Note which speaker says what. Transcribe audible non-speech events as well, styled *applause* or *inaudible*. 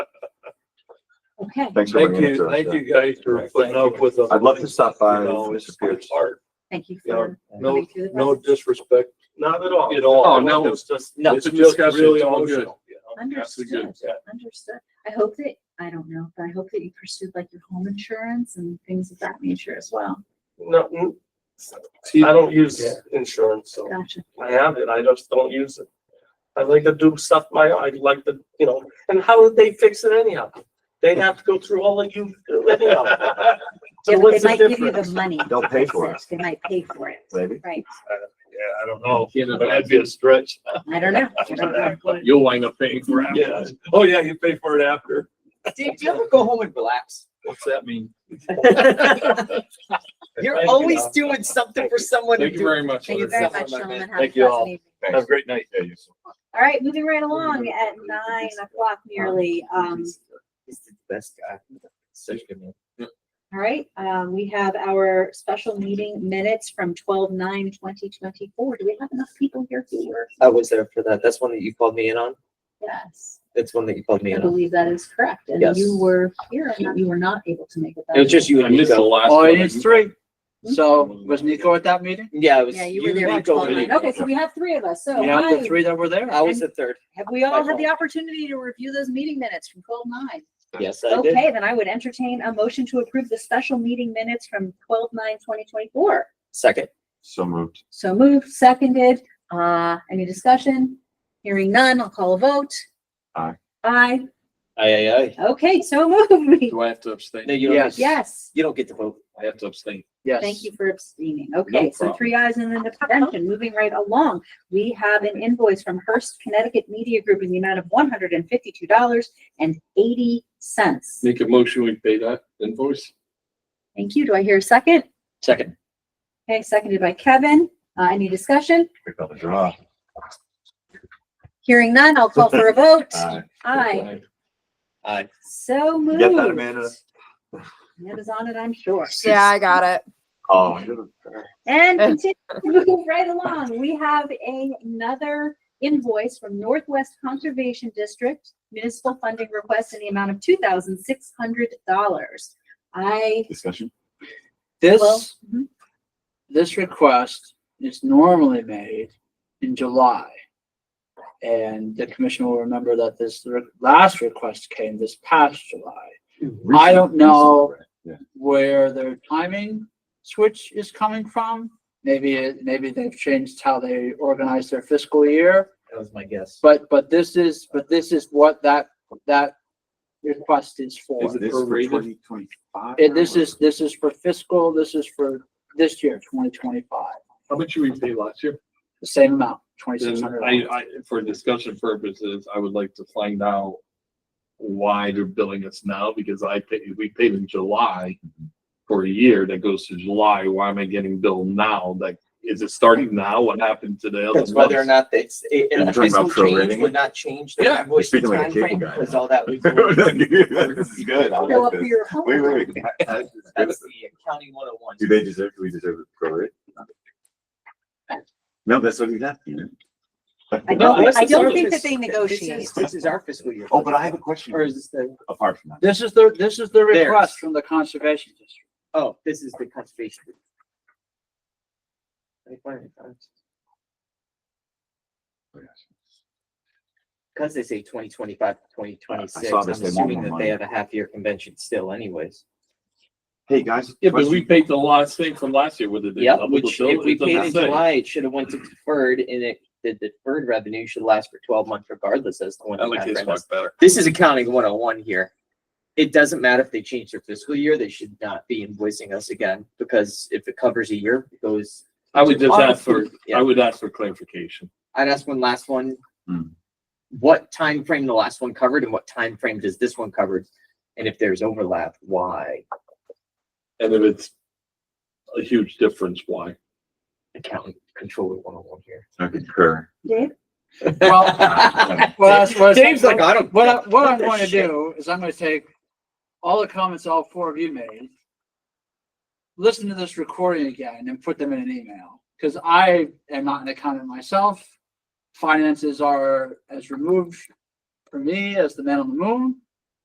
Speaker 1: Okay.
Speaker 2: Thanks for
Speaker 3: Thank
Speaker 2: bringing it to
Speaker 3: you,
Speaker 2: us.
Speaker 3: thank
Speaker 2: yeah.
Speaker 3: you guys for putting up with us.
Speaker 2: I'd love to stop by
Speaker 3: You know,
Speaker 2: if
Speaker 3: it's
Speaker 2: Mr. Pierce.
Speaker 3: hard.
Speaker 1: Thank you
Speaker 3: Yeah,
Speaker 1: for
Speaker 3: No,
Speaker 1: coming to the.
Speaker 3: no
Speaker 1: process.
Speaker 3: disrespect
Speaker 4: Not at all.
Speaker 3: at all.
Speaker 5: Oh, no,
Speaker 3: It's just,
Speaker 5: nothing
Speaker 3: it's just
Speaker 5: discussed, it's
Speaker 3: really
Speaker 5: all good.
Speaker 3: emotional. you know?
Speaker 1: Understood,
Speaker 3: Yeah.
Speaker 1: understood. I hope that, I don't know, but I hope that you pursued like your home insurance and things of that nature as well.
Speaker 4: No, mm, I don't use insurance, so
Speaker 1: Gotcha.
Speaker 4: I have it. I just don't use it. I like to do stuff my, I like to, you know, and how would they fix it anyhow? They'd have to go through all of you
Speaker 3: *laughs*
Speaker 4: anyhow.
Speaker 1: Yeah,
Speaker 4: So
Speaker 1: but
Speaker 4: what's
Speaker 1: They might
Speaker 4: the
Speaker 1: give you the
Speaker 4: difference?
Speaker 1: money.
Speaker 2: They'll pay
Speaker 1: to
Speaker 2: for
Speaker 1: fix They might pay for it,
Speaker 2: Maybe.
Speaker 1: right?
Speaker 3: Yeah, I don't know,
Speaker 5: You know,
Speaker 3: but that'd be a stretch.
Speaker 1: I don't
Speaker 3: *laughs*
Speaker 1: know. I don't know.
Speaker 5: You'll wind up paying for it.
Speaker 3: Yeah, oh yeah, you pay for it after.
Speaker 6: Dave, do you ever go home
Speaker 5: *laughs*
Speaker 6: and relax?
Speaker 3: What's that mean?
Speaker 6: You're
Speaker 4: Thank you,
Speaker 6: always
Speaker 4: Bob.
Speaker 6: doing something for someone to
Speaker 5: Thank you
Speaker 6: do.
Speaker 5: very much.
Speaker 1: Thank you
Speaker 5: Larry.
Speaker 1: very much, gentlemen. Have a
Speaker 3: Thank you all.
Speaker 1: pleasant evening.
Speaker 3: Have a great night.
Speaker 1: All right, moving right along at nine o'clock nearly. Um,
Speaker 6: He's the best guy. Such a good man.
Speaker 1: all right, um, we have our special meeting minutes from twelve nine twenty twenty-four. Do we have enough people here who were?
Speaker 6: I was there for that. That's one that you called me in on.
Speaker 1: Yes,
Speaker 6: That's one that you called me
Speaker 1: I
Speaker 6: in on.
Speaker 1: believe that is correct. And
Speaker 6: Yes.
Speaker 1: you were here and you were not able to make it. that
Speaker 7: It was just you
Speaker 5: I
Speaker 7: and
Speaker 5: missed the
Speaker 7: Nico.
Speaker 5: last
Speaker 7: Oh,
Speaker 5: one.
Speaker 7: it is three. So was Nico at that meeting?
Speaker 6: Yeah, I was.
Speaker 1: Yeah, you were there
Speaker 6: did
Speaker 1: at
Speaker 6: go
Speaker 1: twelve nine.
Speaker 6: in.
Speaker 1: Okay, so we have three of us. So
Speaker 7: You had the
Speaker 1: hi.
Speaker 7: three that were there?
Speaker 6: I was the third.
Speaker 1: have we all had the opportunity to review those meeting minutes from twelve nine?
Speaker 6: Yes, I did.
Speaker 1: Okay, then I would entertain a motion to approve the special meeting minutes from twelve nine twenty twenty-four.
Speaker 6: Second.
Speaker 2: So moved.
Speaker 1: So moved, seconded. Uh, any discussion? Hearing none, I'll call a vote.
Speaker 2: Aye.
Speaker 1: Aye.
Speaker 6: Aye, aye,
Speaker 1: Okay, so moved.
Speaker 5: Do I have to
Speaker 6: aye.
Speaker 5: abstain?
Speaker 6: No, you don't,
Speaker 1: *laughs*
Speaker 7: Yes.
Speaker 6: get-
Speaker 1: Yes.
Speaker 6: you don't get to vote.
Speaker 5: I have to abstain.
Speaker 7: Yes.
Speaker 1: Thank you for abstaining. Okay, so
Speaker 5: problem.
Speaker 1: three ayes and an abstention. Moving right along, we have an invoice from Hearst Connecticut Media Group in the amount of one hundred and fifty-two dollars and eighty cents.
Speaker 5: Make a motion, we pay that invoice?
Speaker 1: Thank you. Do I hear a second?
Speaker 7: Second.
Speaker 1: Okay, seconded by Kevin. Uh, any discussion?
Speaker 2: We got the draw.
Speaker 1: Hearing none, I'll call for a vote.
Speaker 2: *laughs* Aye.
Speaker 1: Aye.
Speaker 6: Aye.
Speaker 1: So
Speaker 2: You
Speaker 1: moved.
Speaker 2: get that, Amanda?
Speaker 1: Amanda's on it, I'm sure.
Speaker 8: *laughs* Yeah, I got it.
Speaker 2: Oh, I should've-
Speaker 1: And continue *laughs* to move right along, we have a- another invoice from Northwest Conservation District municipal funding request in the amount of two thousand six hundred dollars. I,
Speaker 2: discussion.
Speaker 1: well,
Speaker 7: This,
Speaker 1: mhm.
Speaker 7: this request is normally made in July. And the commission will remember that this re- last request came this past July. I don't know where their timing switch is coming from. Maybe, it- maybe they've changed how they organize their fiscal year.
Speaker 6: That was my guess.
Speaker 7: But, but this is, but this is what that, that request is for.
Speaker 5: Is it prorated?
Speaker 2: twenty-five?
Speaker 7: And
Speaker 2: *laughs*
Speaker 7: this is, this is for fiscal, this is for this year, twenty twenty-five,
Speaker 5: How much did we pay last year?
Speaker 7: the same amount, twenty-six
Speaker 5: Then
Speaker 7: hundred.
Speaker 5: I, I, for discussion purposes, I would like to find out why they're billing us now, because I paid, we paid in July for a year that goes to July. Why am I getting billed now? Like, is it starting now? What happened to the
Speaker 6: Because
Speaker 5: other
Speaker 6: whether or
Speaker 5: months?
Speaker 6: not it's, it-
Speaker 2: You're
Speaker 6: a
Speaker 2: talking about
Speaker 6: fiscal change
Speaker 2: prorating it?
Speaker 6: would not change.
Speaker 5: Yeah,
Speaker 6: the
Speaker 5: you're
Speaker 6: invoice
Speaker 2: speaking like a cable
Speaker 6: timeframe,
Speaker 2: guy
Speaker 6: Because
Speaker 2: now. *laughs*
Speaker 6: all that. was going-
Speaker 2: This is good. I
Speaker 1: go up
Speaker 2: like
Speaker 1: for
Speaker 2: this.
Speaker 1: your home.
Speaker 2: Wait, wait, wait. I- I-
Speaker 6: That's the accounting one oh one.
Speaker 2: Do they deserve, do we deserve it for it? No, that's what we got. you know?
Speaker 1: I don't,
Speaker 6: This
Speaker 1: I
Speaker 6: is
Speaker 1: don't
Speaker 6: our
Speaker 1: think that
Speaker 6: fis-
Speaker 1: they negotiate.
Speaker 6: This is- this is our fiscal year.
Speaker 2: Oh, but I have a question.
Speaker 6: Or is this the,
Speaker 2: Apart from that.
Speaker 7: This is the, this is the
Speaker 6: Theirs.
Speaker 7: request from the conservation district.
Speaker 6: oh, this is the conservation. Let me find it, guys. Because they say 2025, 2026.
Speaker 2: I saw this,
Speaker 6: I'm
Speaker 2: they want
Speaker 6: assuming
Speaker 2: more
Speaker 6: that
Speaker 2: money.
Speaker 6: they have a half year convention still anyways.
Speaker 2: Hey, guys.
Speaker 5: Yeah, but we
Speaker 2: question.
Speaker 5: paid the last thing from last year, whether they
Speaker 6: Yep,
Speaker 5: doubled the
Speaker 6: which
Speaker 5: bill,
Speaker 6: if we
Speaker 5: it
Speaker 6: paid in
Speaker 5: doesn't say.
Speaker 6: July, it should have went to deferred and it, the deferred revenue should last for twelve months regardless as to when.
Speaker 5: I
Speaker 6: the
Speaker 5: like this
Speaker 6: contract
Speaker 5: one
Speaker 6: ends.
Speaker 5: better.
Speaker 6: This is accounting one oh one here. It doesn't matter if they change their fiscal year, they should not be invoicing us again because if it covers a year, it goes.
Speaker 5: I would just
Speaker 6: Our-
Speaker 5: ask for, I
Speaker 6: Yeah,
Speaker 5: would ask for clarification.
Speaker 6: I'd ask one last one.
Speaker 2: Hmm.
Speaker 6: What time frame the last one covered and what time frame does this one cover? And if there's overlap, why?
Speaker 5: And if it's a huge difference, why?
Speaker 6: Accounting controller one oh one here.
Speaker 2: I *laughs* concur.
Speaker 1: Dave?
Speaker 6: *laughs*
Speaker 7: Well- Well, that's what.
Speaker 6: Dave's like, I don't.
Speaker 7: What, I- what I'm
Speaker 6: That
Speaker 7: going to
Speaker 6: shit.
Speaker 7: do is I'm going to take all the comments all four of you made, listen to this recording again and put them in an email. Because I am not an accountant myself. Finances are as removed for me as the man on the moon.